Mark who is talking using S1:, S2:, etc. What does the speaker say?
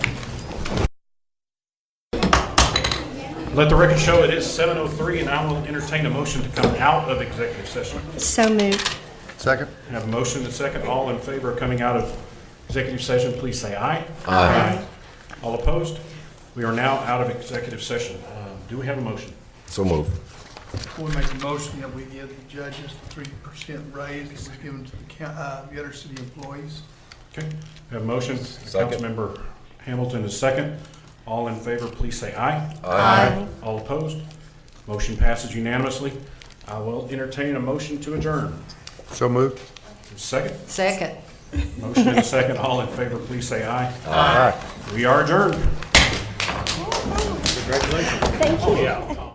S1: Let the record show it is 7:03, and I will entertain a motion to come out of executive session.
S2: So moved.
S3: Second?
S1: Have a motion and second. All in favor of coming out of executive session, please say aye.
S3: Aye.
S1: All opposed? We are now out of executive session. Um, Do we have a motion?
S3: So move.
S4: Before we make a motion that we give the judges the three percent raise that was given to the coun, uh, the other city employees.
S1: Okay, we have a motion.
S3: Second.
S1: Councilmember Hamilton is second. All in favor, please say aye.
S2: Aye.
S1: All opposed? Motion passes unanimously. I will entertain a motion to adjourn.
S3: So moved.
S1: Second,
S2: Second.
S1: motion and a second. All in favor, please say aye.
S3: Aye.
S1: We are adjourned.
S2: Thank you.
S1: Yeah.